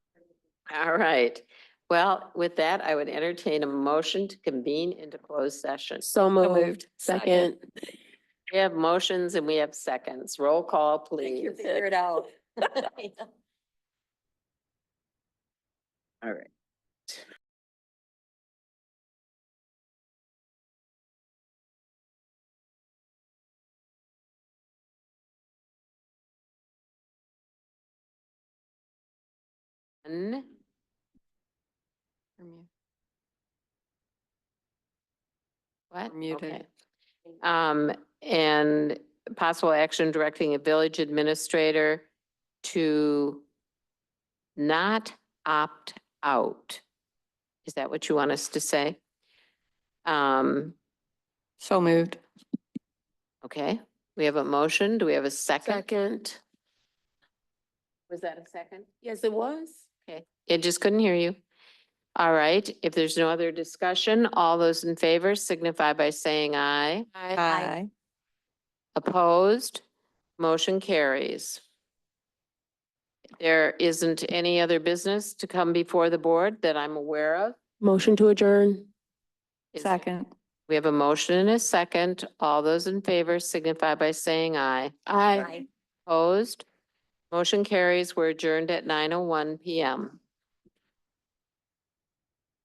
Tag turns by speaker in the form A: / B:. A: All right. Well, with that, I would entertain a motion to convene into closed session.
B: So moved. Second.
A: We have motions and we have seconds. Roll call, please.
B: figure it
A: out. All right. One. What?
B: We're muted.
A: Okay. Um, and possible action directing a village administrator to not opt out. Is that what you want us to say? Um,
B: So moved.
A: okay, we have a motion. Do we have a second?
B: Second.
A: Was that a second?
B: Yes, it was.
A: Okay, it just couldn't hear you. All right, if there's no other discussion, all those in favor signify by saying aye.
B: Aye.
A: Opposed? Motion carries. There isn't any other business to come before the board that I'm aware of.
B: Motion to adjourn.
A: Is- We have a motion and a second. All those in favor signify by saying aye.
B: Aye.
A: Opposed? Motion carries. We're adjourned at nine oh one PM.